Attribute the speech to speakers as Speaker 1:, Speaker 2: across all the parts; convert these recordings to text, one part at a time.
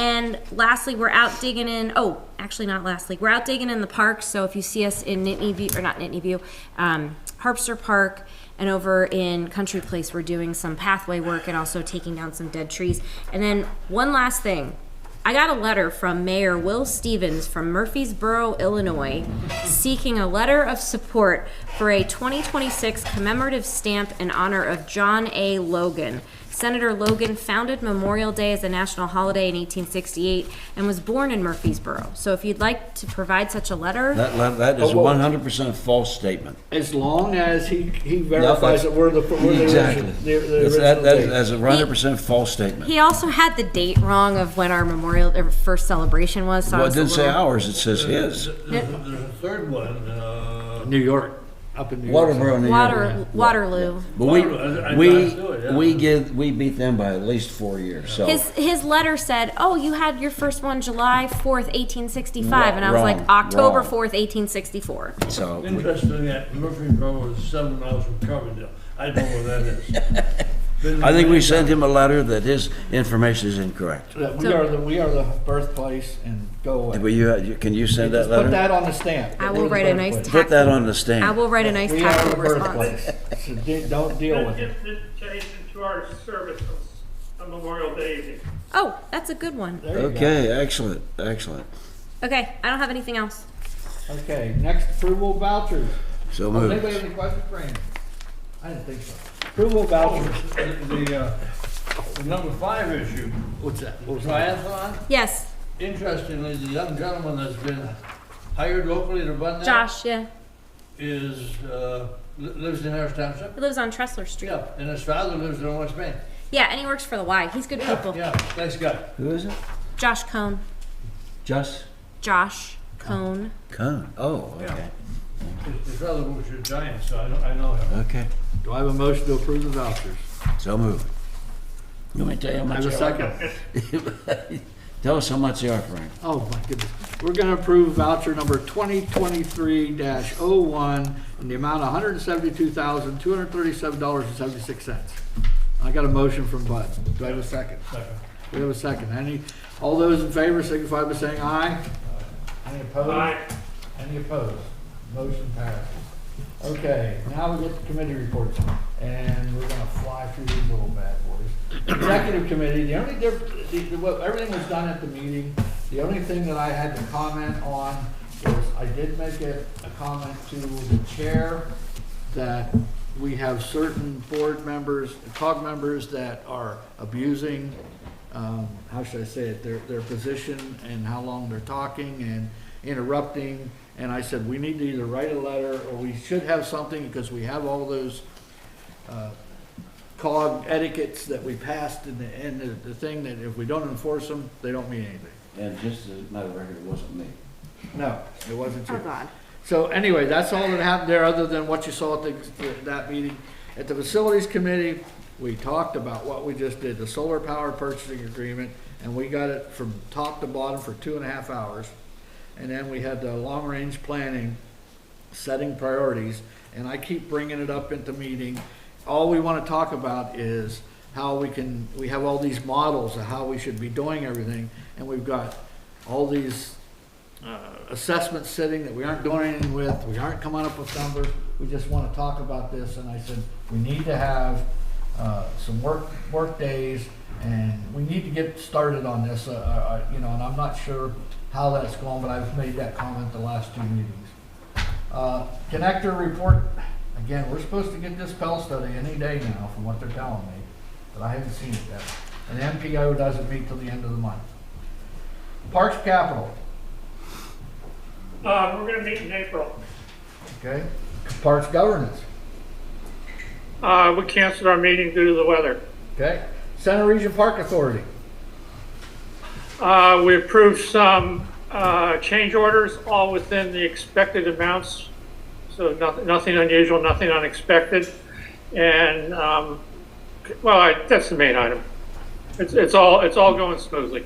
Speaker 1: And lastly, we're out digging in, oh, actually not lastly, we're out digging in the park, so if you see us in Nittany View, or not Nittany View, um, Harpster Park and over in Country Place, we're doing some pathway work and also taking down some dead trees. And then one last thing, I got a letter from Mayor Will Stevens from Murfreesboro, Illinois, seeking a letter of support for a 2026 commemorative stamp in honor of John A. Logan. Senator Logan founded Memorial Day as a national holiday in 1868 and was born in Murfreesboro. So if you'd like to provide such a letter,
Speaker 2: That, that- that is a
Speaker 3: Oh, well-
Speaker 2: one hundred percent false statement.
Speaker 3: As long as he, he verifies that we're the, we're the
Speaker 2: Exactly.
Speaker 3: original, the the
Speaker 2: That's- that- that is-
Speaker 3: original
Speaker 2: That's a one hundred percent false statement.
Speaker 1: he also had the date wrong of when our memorial, or first celebration was, so I
Speaker 2: Well, it
Speaker 1: was a
Speaker 2: didn't say
Speaker 1: little-
Speaker 2: ours, it says
Speaker 3: Uh,
Speaker 2: his.
Speaker 4: There's a- there's a third one, uh,
Speaker 3: date. New York, up in New York.
Speaker 2: Waterboro, New York.
Speaker 1: Water, Waterloo.
Speaker 2: But we,
Speaker 4: Waterboro, I- I
Speaker 2: we,
Speaker 4: knew it, yeah.
Speaker 2: we give, we beat them by at least four years, so.
Speaker 1: His his letter said, "Oh, you had your first one July fourth, eighteen sixty five,
Speaker 2: Wrong,
Speaker 1: and I was like
Speaker 2: wrong,
Speaker 1: October
Speaker 2: wrong. Hmm.
Speaker 1: fourth, eighteen sixty four.
Speaker 2: So, we-
Speaker 4: interesting that Murfreesboro is seven miles from Coverdale. I don't know where that is. Been
Speaker 2: I think
Speaker 4: there
Speaker 2: we
Speaker 4: many
Speaker 2: sent him a letter that his information is incorrect.
Speaker 3: That we are the, we are the birthplace and go away.
Speaker 2: Will you, you- can you send that
Speaker 3: Just put
Speaker 2: letter?
Speaker 3: that on the stamp.
Speaker 1: I
Speaker 3: that
Speaker 1: will
Speaker 3: we're the
Speaker 1: write a nice
Speaker 3: birthplace.
Speaker 2: Put that
Speaker 1: tactful.
Speaker 2: on the
Speaker 1: I
Speaker 2: stand.
Speaker 1: will write a nice
Speaker 3: We are the
Speaker 1: tactful response.
Speaker 3: birthplace, so de- don't deal with
Speaker 5: Let's
Speaker 3: it.
Speaker 5: get this changed into our services on Memorial Day evening.
Speaker 1: Oh, that's a good one.
Speaker 3: There you go.
Speaker 2: Okay, excellent, excellent.
Speaker 1: Okay, I don't have anything else.
Speaker 3: Okay, next approval of vouchers.
Speaker 2: So
Speaker 3: Does Anybody
Speaker 2: moved.
Speaker 3: have any questions for Andy? I didn't think so. Approval of vouchers.
Speaker 4: The, the, uh, the number five issue,
Speaker 3: What's that? What was that?
Speaker 4: triathlon,
Speaker 1: Yes,
Speaker 4: interestingly, the young gentleman that's been hired locally to run that
Speaker 1: Josh. Yeah,
Speaker 4: is, uh, li- lives in Harris Township.
Speaker 1: he lives on Tressler Street. Yeah.
Speaker 4: Yeah, and his father lives in West Main.
Speaker 1: and he works for the Y. He's good
Speaker 4: Yeah,
Speaker 1: people.
Speaker 4: yeah, thanks God.
Speaker 2: Who is it?
Speaker 1: Josh Cohn.
Speaker 2: Just
Speaker 1: Josh Cohn.
Speaker 2: Cone. Oh, okay,
Speaker 4: His, his father works at Giants, so I know, I know him.
Speaker 2: okay.
Speaker 3: Do I have a motion to approve the vouchers?
Speaker 2: So moved. You want me to tell you how
Speaker 3: I
Speaker 2: much?
Speaker 3: have a second.
Speaker 2: second. Tell us how much they are, Frank.
Speaker 3: Oh, my goodness. We're going to approve voucher number 2023-01 in the amount of $172,237.76. I got a motion from Bud. Do I have a second?
Speaker 4: Second.
Speaker 3: We have a second. Any, all those in favor signify by saying aye. Any opposed?
Speaker 5: Aye.
Speaker 3: Any opposed? Motion passes. Okay, now we get to committee reports, and we're gonna fly through these little bad boys. Executive committee, the only diff, the, the- what, everything was done at the meeting. The only thing that I had to comment on was I did make a, a comment to the chair that we have certain board members, COG members that are abusing, um, how should I say it, their, their position and how long they're talking and interrupting. And I said, we need to either write a letter or we should have something because we have all those, uh, COG etiquettes that we passed in the, in the, the thing that if we don't enforce them, they don't mean anything.
Speaker 2: And just as a matter of record, it wasn't me.
Speaker 3: No, it wasn't you.
Speaker 1: God.
Speaker 3: So anyway, that's all that happened there, other than what you saw at the, that meeting. At the facilities committee, we talked about what we just did, the solar power purchasing agreement, and we got it from top to bottom for two and a half hours. And then we had the long-range planning, setting priorities, and I keep bringing it up into meeting. All we want to talk about is how we can, we have all these models of how we should be doing everything, and we've got all these uh, assessment sitting that we aren't doing anything with, we aren't coming up with numbers, we just want to talk about this, and I said, we need to have uh, some work, work days, and we need to get started on this, uh, uh, you know, and I'm not sure how that's going, but I've made that comment the last two meetings. Uh, Connector report, again, we're supposed to get this Pell study any day now, from what they're telling me, but I haven't seen it yet. And MPO doesn't meet till the end of the month. Parks Capital,
Speaker 5: Uh, we're gonna meet in April.
Speaker 3: Okay, parks governance,
Speaker 5: Uh, we canceled our meeting due to the weather.
Speaker 3: okay? Center Region Park Authority,
Speaker 5: Uh, we approved some, uh, change orders, all within the expected amounts. So nothing, nothing unusual, nothing unexpected. And, um, well, I, that's the main item. It's, it's all, it's all going smoothly.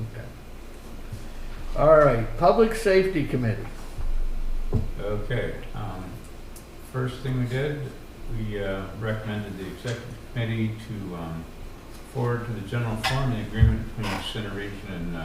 Speaker 3: okay. All right, Public Safety Committee,
Speaker 6: Okay, um, first thing we did, we uh, recommended the executive committee to, um, forward to the general forum the agreement between Center Region and, uh,